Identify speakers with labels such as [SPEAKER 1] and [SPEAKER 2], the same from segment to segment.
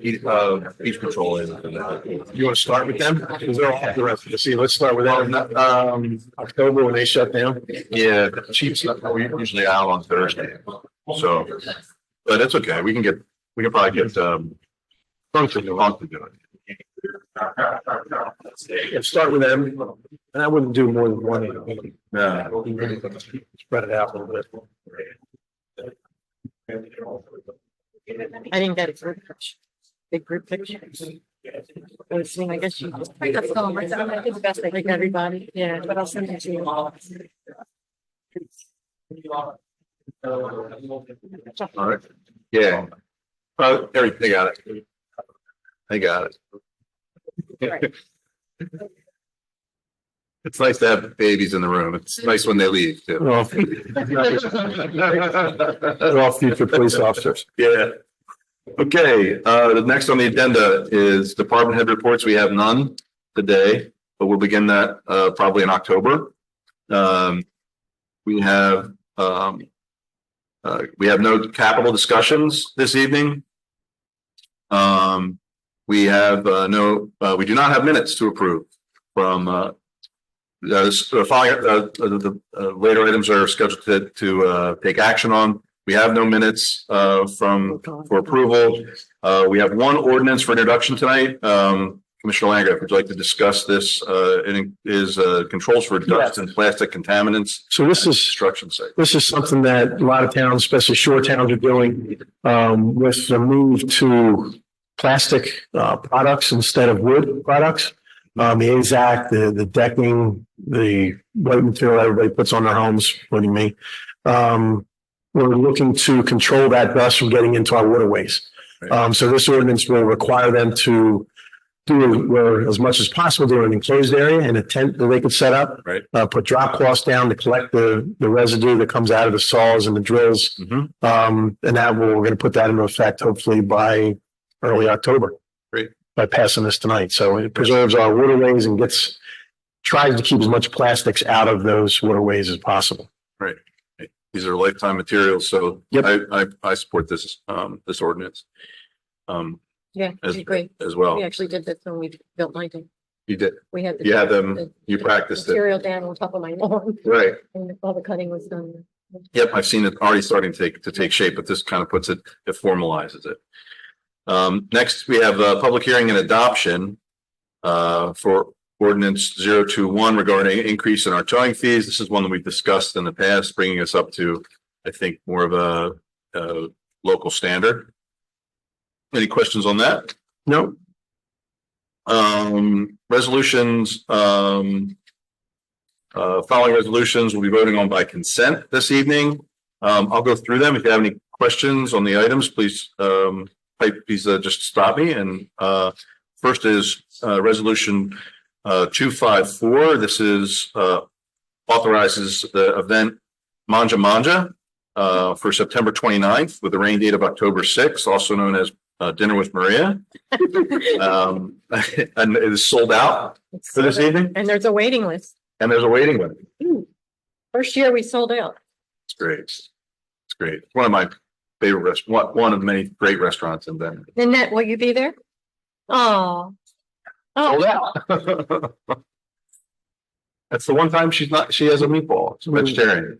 [SPEAKER 1] heat, uh, beach patrol in. in that.
[SPEAKER 2] You want to start with them? Because they're off the rest of the season. Let's start with
[SPEAKER 1] Well,
[SPEAKER 2] them.
[SPEAKER 1] not- um,
[SPEAKER 2] October when they shut down.
[SPEAKER 1] yeah, the Chiefs, we're usually out on Thursday, so, but it's okay, we can get, we can probably get, um, Funk to do Funk to do it.
[SPEAKER 2] Let's start with them. And I wouldn't do more than one. at a time.
[SPEAKER 1] Yeah.
[SPEAKER 2] Spread it out a little bit.
[SPEAKER 3] I didn't get a group picture. Big group pictures. I was seeing, I guess you.
[SPEAKER 4] I got some, I said, I did the best I
[SPEAKER 3] Like everybody, yeah.
[SPEAKER 4] but I'll send it to you all.
[SPEAKER 1] All right, yeah. Oh, there, they got it. They got it. It's nice to have babies in the room. It's nice when they leave too.
[SPEAKER 2] They're all- they're all future police officers.
[SPEAKER 1] Yeah. Okay, uh, the next on the agenda is department head reports. We have none today, but we'll begin that, uh, probably in October. Um, we have, um, uh, we have no capital discussions this evening. Um, we have, uh, no, uh, we do not have minutes to approve from, uh, those, uh, following, uh, the, the, uh, later items are scheduled to, to, uh, take action on. We have no minutes, uh, from, for approval. Uh, we have one ordinance for introduction tonight. Um, Commissioner Langgraf, would you like to discuss this? Uh, it is, uh, controls for dust and plastic contaminants.
[SPEAKER 2] So this is
[SPEAKER 1] Construction site.
[SPEAKER 2] this is something that a lot of towns, especially shore towns are doing, um, with the move to plastic, uh, products instead of wood products. Um, the AZAC, the, the decking, the white material everybody puts on their homes, including me. Um, we're looking to control that dust from getting into our waterways. Um, so this ordinance will require them to do it where as much as possible, do an enclosed area and a tent that they could set up uh, put drop cloths down to collect the, the residue that comes out of the saws and the drills.
[SPEAKER 1] Mhm.
[SPEAKER 2] Um, and that will, we're going to put that into effect hopefully by early October.
[SPEAKER 1] Great.
[SPEAKER 2] By passing this tonight. So it preserves our waterways and gets, tries to keep as much plastics out of those waterways as possible.
[SPEAKER 1] These are lifetime materials, so
[SPEAKER 2] Yep.
[SPEAKER 1] I, I, I support this, um, this ordinance. Um,
[SPEAKER 3] Yeah,
[SPEAKER 1] as,
[SPEAKER 3] it's great.
[SPEAKER 1] as
[SPEAKER 3] We
[SPEAKER 1] well.
[SPEAKER 3] actually did this when we built my thing.
[SPEAKER 1] You did,
[SPEAKER 3] We had. the-
[SPEAKER 1] you had them,
[SPEAKER 3] the
[SPEAKER 1] you practiced it.
[SPEAKER 3] Material down on top of my lawn
[SPEAKER 1] Right.
[SPEAKER 3] and all the cutting was done.
[SPEAKER 1] Yep, I've seen it already starting to take, to take shape, but this kind of puts it, it formalizes it. Um, next, we have a public hearing and adoption uh, for ordinance 021 regarding increase in our towing fees. This is one that we've discussed in the past, bringing us up to, I think, more of a, uh, local standard. Any questions on that?
[SPEAKER 2] No,
[SPEAKER 1] Um, resolutions, um. Uh, following resolutions will be voting on by consent this evening. Um, I'll go through them. If you have any questions on the items, please, um, type, please, uh, just stop me and, uh. First is, uh, resolution, uh, two five four. This is, uh, authorizes the event Manja Manja. Uh, for September 29th with a rain date of October sixth, also known as, uh, Dinner with Maria. Um, and it is sold out
[SPEAKER 3] It's
[SPEAKER 1] for this
[SPEAKER 3] sold out.
[SPEAKER 1] evening
[SPEAKER 3] And there's a waiting list.
[SPEAKER 1] and there's a waiting list.
[SPEAKER 3] First year we sold out.
[SPEAKER 1] It's great. It's great. It's One of my favorite rest, one, one of many great restaurants in Denver.
[SPEAKER 3] Nanette, will you be there? Oh.
[SPEAKER 1] Sold
[SPEAKER 3] Oh,
[SPEAKER 1] out. That's the one time she's not, she has a meatball. It's vegetarian.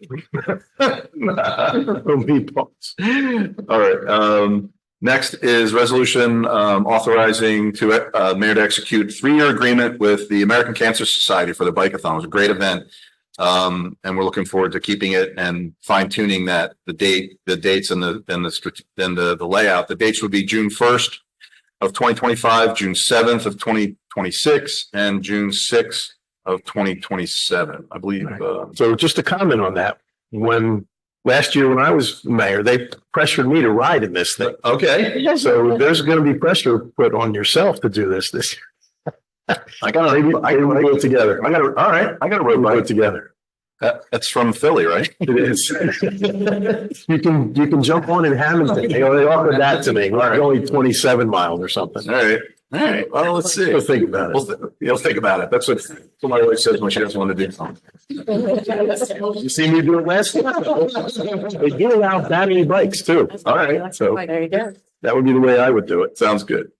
[SPEAKER 2] no meatballs.
[SPEAKER 1] All right, um, next is resolution, um, authorizing to, uh, mayor to execute three-year agreement with the American Cancer Society for the Bikeathon. It was a great event. Um, and we're looking forward to keeping it and fine tuning that, the date, the dates and the, and the, strat- and the, the layout. The dates would be June first of twenty twenty-five, June seventh of twenty twenty-six, and June sixth of twenty twenty-seven, I believe.
[SPEAKER 2] Right.
[SPEAKER 1] uh,
[SPEAKER 2] So just to comment on that, when last year when I was mayor, they pressured me to ride in this thing.
[SPEAKER 1] Okay,
[SPEAKER 2] So there's going to be pressure put on yourself to do this this year.
[SPEAKER 1] I got,
[SPEAKER 2] Maybe,
[SPEAKER 1] a- I
[SPEAKER 2] maybe
[SPEAKER 1] got,
[SPEAKER 2] we'll
[SPEAKER 1] a-
[SPEAKER 2] do it together.
[SPEAKER 1] I got, a- all right, I got a road
[SPEAKER 2] We'll do
[SPEAKER 1] bike.
[SPEAKER 2] it together.
[SPEAKER 1] That, that's from Philly, right?
[SPEAKER 2] It is. You can, you can jump on in Hamilton. They they offered that to me. We're only twenty-seven miles or something.
[SPEAKER 1] All right. All right, well, let's see.
[SPEAKER 2] We'll think about it.
[SPEAKER 1] We'll, th- you'll think about it. That's what, that's what my wife says when she doesn't want to do something.
[SPEAKER 2] You see me do it last year? They do allow battery bikes too.
[SPEAKER 1] All right, so
[SPEAKER 3] There you go.
[SPEAKER 1] that would be the way I would do it. Sounds good.